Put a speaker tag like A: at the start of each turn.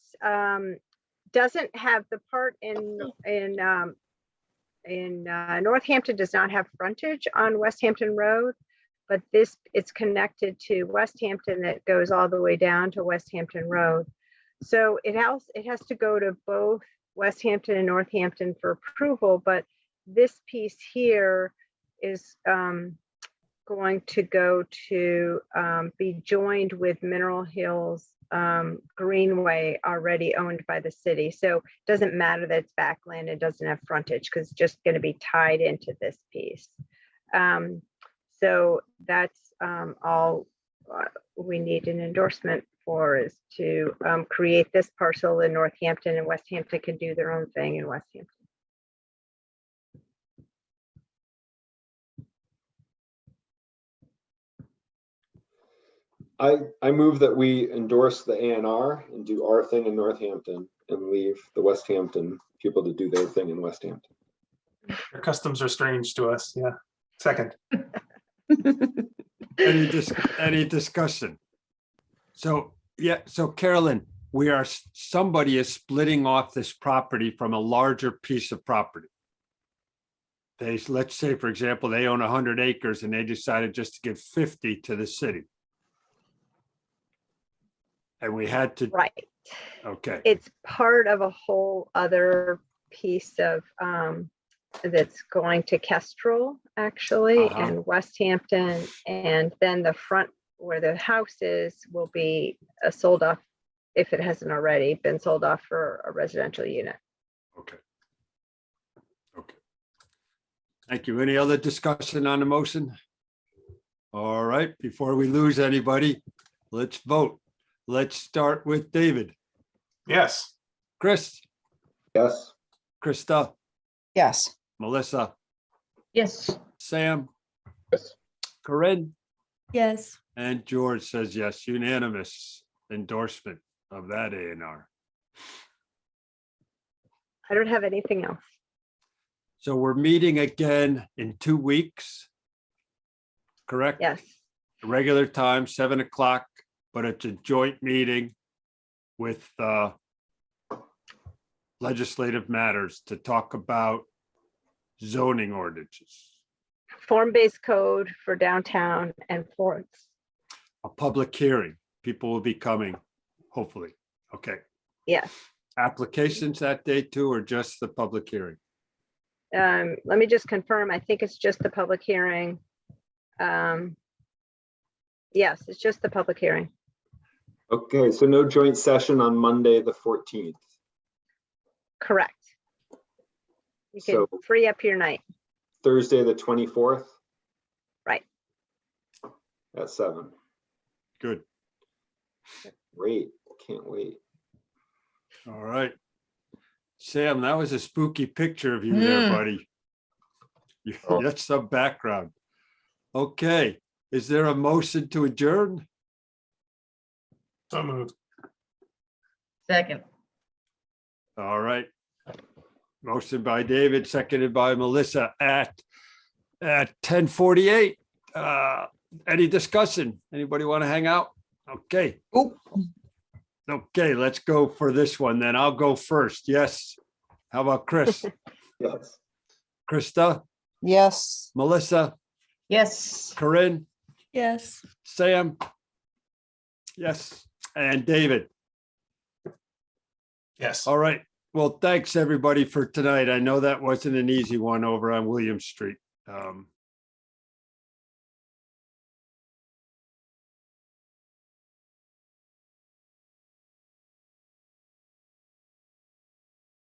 A: um, doesn't have the part in, in, um, in, uh, Northampton does not have frontage on West Hampton Road. But this, it's connected to West Hampton that goes all the way down to West Hampton Road. So it has, it has to go to both West Hampton and Northampton for approval, but this piece here is, um, going to go to um, be joined with Mineral Hills um, Greenway already owned by the city. So it doesn't matter that it's backland, it doesn't have frontage because it's just going to be tied into this piece. Um, So that's um, all uh, we need an endorsement for is to um, create this parcel in Northampton and West Hampton can do their own thing in West Hampton.
B: I, I move that we endorse the A and R and do our thing in Northampton and leave the West Hampton people to do their thing in West Hampton.
C: Their customs are strange to us, yeah. Second,
D: Any dis- any discussion? So, yeah, so Carolyn, we are, s- somebody is splitting off this property from a larger piece of property. They, s- let's say, for example, they own hundred acres and they decided just to give fifty to the city. And we had to,
A: Right.
D: okay,
A: it's part of a whole other piece of, um, that's going to Kestrel actually
D: Uh-huh.
A: and West Hampton. And then the front where the house is will be uh, sold off, if it hasn't already been sold off for a residential unit.
D: okay. Okay. Thank you. Any other discussion on the motion? All right, before we lose anybody, let's vote. Let's start with David.
C: yes,
D: Chris,
B: Yes,
D: Krista,
E: Yes.
D: Melissa,
E: Yes.
D: Sam.
B: Yes.
D: Corinne
F: yes,
D: and George says yes, unanimous endorsement of that A and R.
A: I don't have anything else.
D: So we're meeting again in two weeks. Correct?
A: Yes.
D: regular time, seven o'clock, but it's a joint meeting with uh, legislative matters to talk about zoning ordinances.
A: Form-based code for downtown and Florence.
D: A public hearing. People will be coming, hopefully. Okay.
A: Yes.
D: Applications that day too, or just the public hearing?
A: Um, let me just confirm, I think it's just the public hearing. Um, yes, it's just the public hearing.
B: okay, so no joint session on Monday, the fourteenth.
A: Correct. You can
B: So-
A: free up your night.
B: Thursday, the twenty-fourth?
A: Right.
B: At seven.
D: Good.
B: Great, can't wait.
D: All right. Sam, that was a spooky picture of you there,
E: Hmm.
D: buddy. You-
B: Oh.
D: That's some background. Okay, is there a motion to adjourn?
C: so moved.
E: Second.
D: All right. Motion by David, seconded by Melissa at, at ten forty-eight. Uh, any discussion? Anybody want to hang out? Okay.
E: Oop.
D: Okay, let's go for this one then. I'll go first. Yes. How about Chris?
B: Yes.
D: Krista,
E: Yes.
D: Melissa,
E: Yes.
D: Corinne?
F: yes.
D: Sam? Yes, and David.
C: Yes,
D: All right. Well, thanks, everybody, for tonight. I know that wasn't an easy one over on William Street. Um,